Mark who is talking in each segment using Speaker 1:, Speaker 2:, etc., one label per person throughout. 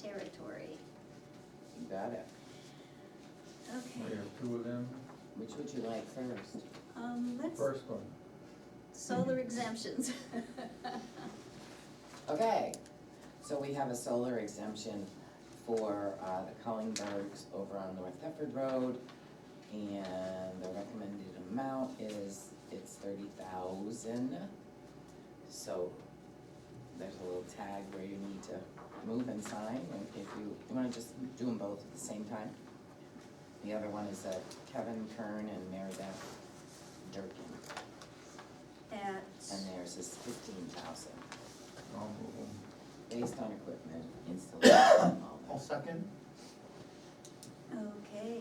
Speaker 1: territory.
Speaker 2: You got it.
Speaker 3: We
Speaker 1: Okay,
Speaker 3: have two of them.
Speaker 2: Which would you like first?
Speaker 1: um, let's,
Speaker 3: First one,
Speaker 1: solar exemptions.
Speaker 2: Okay, so we have a solar exemption for uh, the Cullingbergs over on North Thetford Road. And the recommended amount is, it's thirty thousand. So there's a little tag where you need to move and sign, and if you, you wanna just do them both at the same time? The other one is uh, Kevin Kern and Mary Beth Durkin,
Speaker 1: At,
Speaker 2: and theirs is fifteen thousand.
Speaker 3: I'll move them.
Speaker 2: based on equipment, installation,
Speaker 4: I'll
Speaker 2: all
Speaker 4: second.
Speaker 1: okay.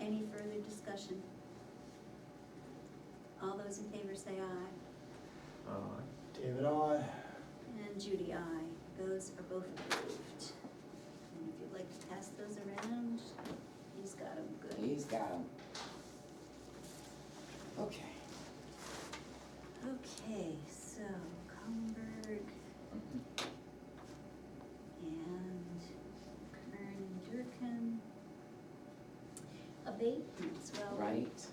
Speaker 1: Any further discussion? All those in favor say aye,
Speaker 3: Uh,
Speaker 4: David, I.
Speaker 1: and Judy, aye. Those are both approved. And if you'd like to pass those around, he's got them
Speaker 2: that.
Speaker 1: good.
Speaker 2: He's got 'em. Okay.
Speaker 1: Okay, so Comberg
Speaker 2: Mhm.
Speaker 1: and Kern Durkin. Abatements, well,
Speaker 2: Right,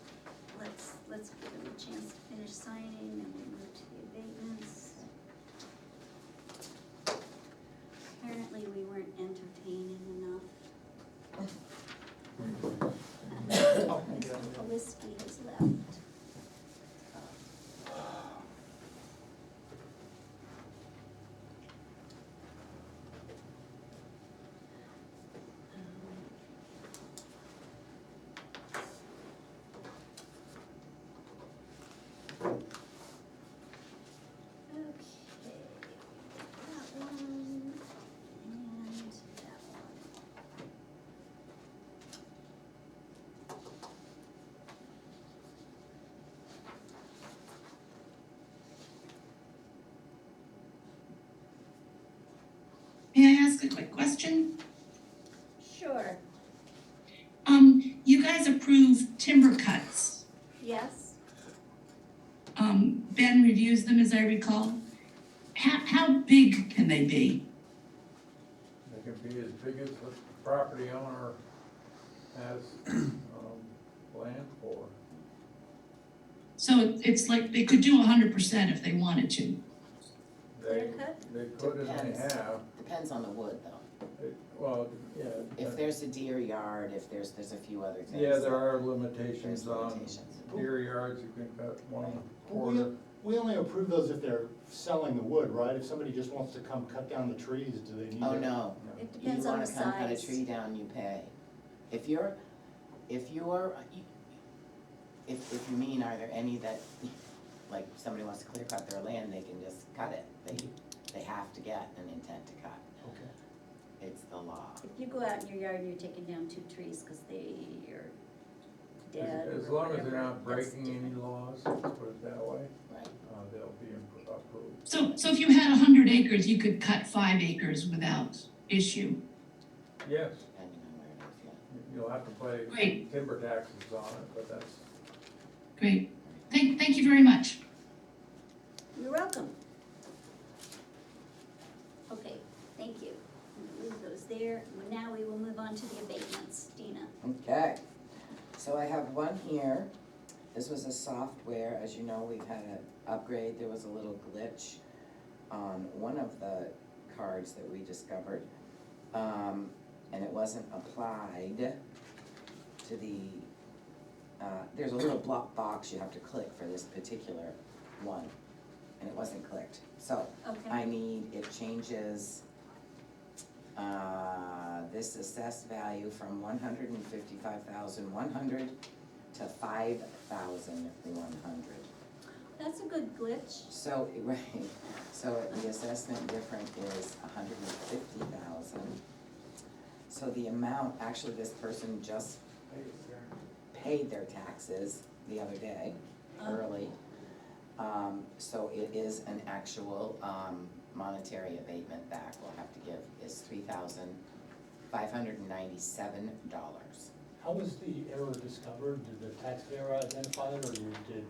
Speaker 1: let's, let's give them a chance to finish signing and we move to the abatements. Apparently, we weren't entertaining enough. Mr. Polisky has left. Um, Okay, that one and that one.
Speaker 5: May I ask a quick question?
Speaker 1: Sure,
Speaker 5: Um, you guys approved timber cuts.
Speaker 1: yes,
Speaker 5: Um, Ben reviews them, as I recall. How, how big can they be?
Speaker 3: They can be as big as the property owner has, um, land for.
Speaker 5: So it- it's like, they could do hundred percent if they wanted to.
Speaker 3: They,
Speaker 1: Clear cut?
Speaker 3: they could and they
Speaker 2: Depends.
Speaker 3: have,
Speaker 2: depends on the wood though.
Speaker 3: It- well, yeah.
Speaker 2: If there's a deer yard, if there's, there's a few other things.
Speaker 3: Yeah, there are um,
Speaker 2: There's
Speaker 3: limitations on
Speaker 2: limitations.
Speaker 3: deer yards, you can cut one
Speaker 4: Well, we,
Speaker 3: quarter.
Speaker 4: we only approve those if they're selling the wood, right? If somebody just wants to come cut down the trees, do they need to?
Speaker 2: Oh, no,
Speaker 1: it
Speaker 2: you
Speaker 1: depends on
Speaker 2: wanna
Speaker 1: the
Speaker 2: come cut a
Speaker 1: size.
Speaker 2: tree down, you pay. If you're, if you're, if, if you mean, are there any that, like, somebody wants to clear cut their land, they can just cut it. They, they have to get an intent to cut,
Speaker 4: Okay.
Speaker 2: it's the law.
Speaker 1: If you go out in your yard and you're taking down two trees because they are dead
Speaker 3: As as
Speaker 1: or
Speaker 3: long as
Speaker 1: whatever,
Speaker 3: they're not
Speaker 1: that's
Speaker 3: breaking any
Speaker 1: different.
Speaker 3: laws, let's put it that way,
Speaker 2: Right.
Speaker 3: uh, they'll be appro- approved.
Speaker 5: So, so if you had hundred acres, you could cut five acres without issue.
Speaker 3: Yes,
Speaker 2: Depending on where it is, yeah.
Speaker 3: you'll have to pay
Speaker 5: Right.
Speaker 3: timber taxes on it, but that's
Speaker 5: Great. Thank, thank you very much.
Speaker 1: You're welcome. Okay, thank you. We'll Leave those there. Well, Now we will move on to the abatements. Dina,
Speaker 2: Okay, so I have one here. This was a software, as you know, we've had an upgrade, there was a little glitch on one of the cards that we discovered. Um, and it wasn't applied to the, uh, there's a little block box you have to click for this particular one. And it wasn't clicked, so
Speaker 1: okay,
Speaker 2: I need, it changes, uh, this assessed value from one hundred and fifty-five thousand one hundred to five thousand one hundred.
Speaker 1: that's a good glitch.
Speaker 2: So, right, so the assessment different is a hundred and fifty thousand. So the amount, actually, this person just paid their taxes the other day,
Speaker 1: Oh.
Speaker 2: early. Um, so it is an actual, um, monetary abatement back we'll have to give is three thousand five hundred and ninety-seven dollars.
Speaker 4: How was the error discovered? Did the taxpayer identify it, or you did